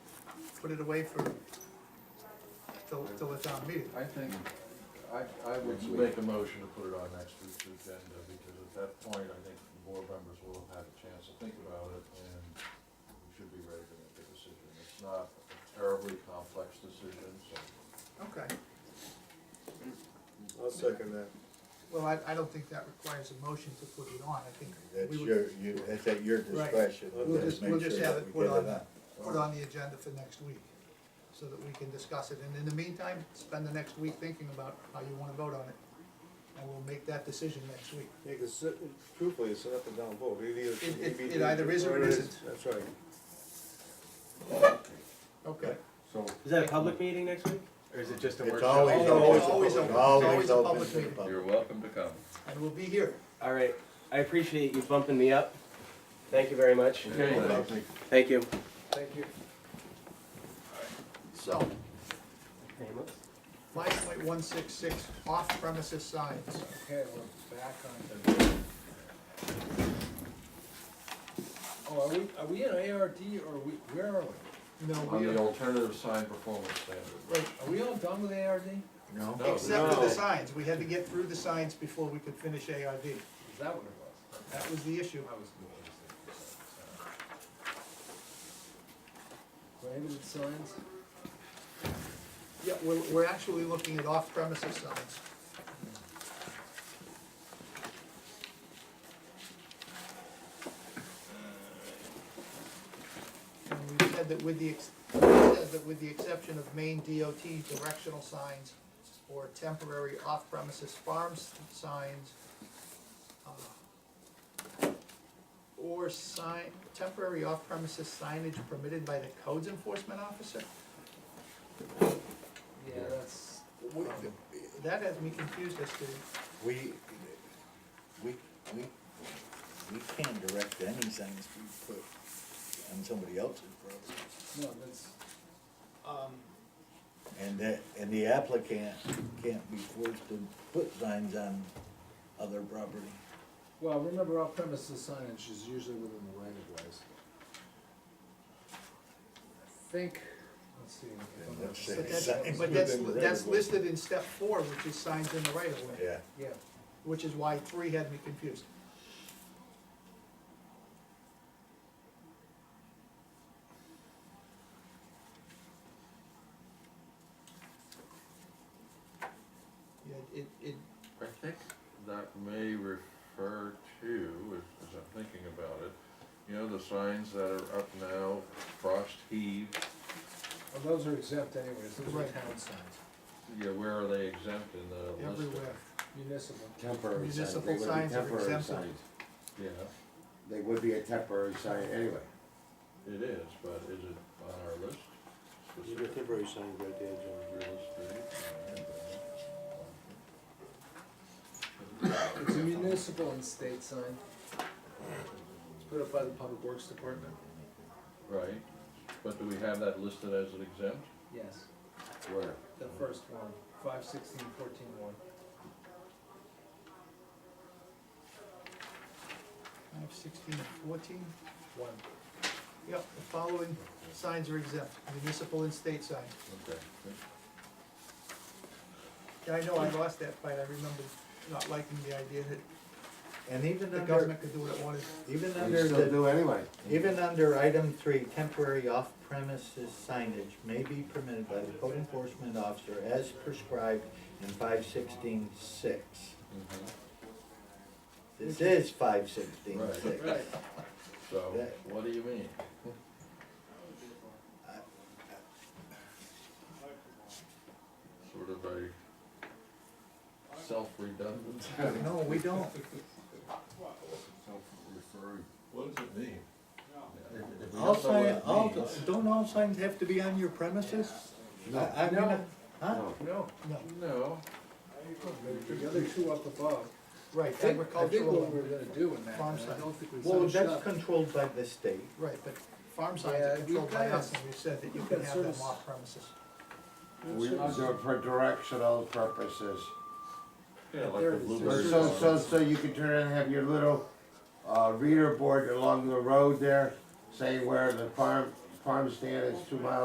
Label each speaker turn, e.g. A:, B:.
A: put it away for, till, till the town meeting.
B: I think, I, I would make a motion to put it on next week's agenda, because at that point, I think the board members will have had a chance to think about it, and we should be ready to make a decision. It's not a terribly complex decision, so.
A: Okay,
C: I'll second that.
A: well, I, I don't think that requires a motion to put it on, I think
D: That's
A: we would
D: your, you, that's at your
A: Right.
D: discretion.
C: We'll
D: Let's
A: just-
D: make
A: we'll just
D: sure
A: have
D: that
A: it
D: we
A: put
D: get
A: on
D: it
A: that. put on the agenda for next week, so that we can discuss it, and in the meantime, spend the next week thinking about how you wanna vote on it. And we'll make that decision next week.
C: Yeah, cause it- it- truthfully, it's an up and down vote, it either.
A: It- it- it either is or it isn't.
C: That's right.
A: Okay.
D: So,
E: Is that a public meeting next week, or is it just a
D: it's
E: workshop?
D: always
A: It's
D: open,
A: always
D: it's
A: open.
D: always
A: It's
D: open,
A: always a public
D: to the
A: meeting.
D: public.
F: You're welcome to come.
A: And we'll be here.
E: All right, I appreciate you bumping me up. Thank you very much.
B: Okay.
E: Thank you.
A: Thank you. So, five point one six six, off premises signs.
G: Okay, we're back on the. Oh, are we, are we in ARD or are we, where are we?
A: No,
B: On
A: we
B: the
A: are,
B: alternative sign performance standard.
A: right,
G: Are we all done with ARD? Is
D: No?
B: No.
A: except for the
B: No.
A: signs, we had to get through the signs before we could finish ARV.
G: that what it was?
A: That was the issue.
G: That was Prohibited signs?
A: Yeah, we're, we're actually looking at off premises signs. And we said that with the, ex- we said that with the exception of main DOT directional signs or temporary off premises farm s- signs, uh, or sign, temporary off premises signage permitted by the codes enforcement officer?
G: Yeah, that's,
D: We,
A: That has me confused as to,
D: we, we, we, we can't direct any signs we put on somebody else's property.
G: no, that's,
A: um,
D: And that, and the applicant can't be forced to put signs on other property.
G: well, remember off premises signage is usually within the right of ways. I think, let's see. if I'm not
D: Let's say
A: but
G: mistaken.
A: that's,
D: Signs
A: but that's,
D: within the right
A: that's
D: of way.
A: listed in step four, which is signs in the right of way,
D: Yeah.
G: Yeah,
A: which is why three had me confused. Yeah, it, it,
B: I think that may refer to, as as I'm thinking about it, you know, the signs that are up now, frost heave,
G: well, those are exempt anyways, those are
A: Right.
G: town signs,
B: yeah, where are they exempt in the list?
A: everywhere,
G: municipal.
H: Temporary signs.
A: Municipal
H: They would be
A: signs are
H: temporary
A: exempt.
H: signs.
B: Yeah,
H: They would be a temporary sign anyway.
B: it is, but is it on our list?
C: You got temporary signs right there, John.
B: Real estate,
G: It's a municipal and state sign. It's put up by the Public Works Department.
B: uh, Right, but do we have that listed as an exempt?
G: Yes,
B: Where?
G: the first one, five sixteen fourteen one.
A: five, sixteen, fourteen.
G: One.
A: Yep, the following signs are exempt, municipal and state signs.
B: Okay.
A: Yeah, I know I lost that fight, I remember not liking the idea that
D: And even
A: the
D: under,
A: government could do what it wanted.
D: even
H: They
D: under
H: still
D: the
H: do anyway.
D: Even under item three, temporary off-premises signage may be permitted by the code enforcement officer as prescribed in five sixteen six.
B: Mhm.
D: This is five sixteen six.
B: Right. So,
D: Yeah.
B: what do you mean? Sort of a self-redundant.
D: No, we don't.
B: Self-referring. What does it mean? If- if we
D: All
B: don't know what
D: sign,
B: it
D: all,
B: means-
D: don't all signs have to be on your premises?
H: No.
D: I- I mean,
G: No.
D: Huh?
G: No,
A: No,
B: No,
G: the other two up above. I
A: right,
G: think, I think
A: agricultural,
G: what we're gonna do in that,
A: Farm
G: and I
A: sign.
G: don't think we
D: Well,
G: set it
D: that's
G: up.
D: controlled by the state.
A: right, but farm signs
G: Yeah,
A: are
G: we've
A: controlled by
G: got-
A: us, and we've said that you
G: we've
A: can
G: got
A: have them
G: service-
A: off premises.
H: We do it for directional purposes.
B: yeah, like
G: There
B: the
G: it is.
H: Or
B: blueberry.
H: so,
B: farm.
H: so, so you can turn and have your little, uh, reader board along the road there, say where the farm, farm stand is two miles